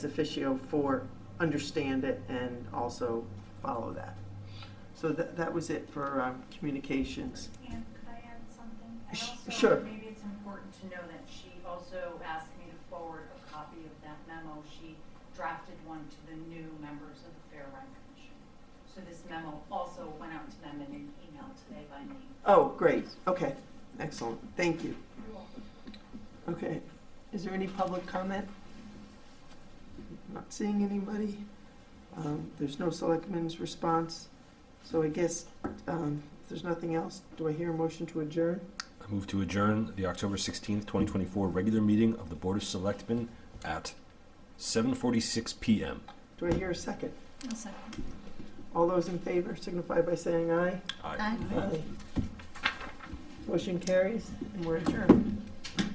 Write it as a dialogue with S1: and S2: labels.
S1: officio for understand it and also follow that. So that, that was it for um, communications.
S2: And could I add something? And
S1: Sh-
S2: also,
S1: sure.
S2: Maybe it's important to know that she also asked me to forward a copy of that memo. She drafted one to the new members of the Fair Rent Commission. So this memo also went out to them in an email today by me.
S1: Oh, great, okay, excellent, thank you. Okay, is there any public comment? Not seeing anybody. Um, There's no selectmen's response, so I guess um, if there's nothing else, do I hear a motion to adjourn?
S3: I move to adjourn the October 16th, 2024 regular meeting of the Board of Selectmen at 7:46 PM.
S1: Do I hear a second?
S4: I'll second.
S1: All those in favor signify by saying aye.
S3: Aye.
S4: Aye.
S1: Motion carries, and we're adjourned.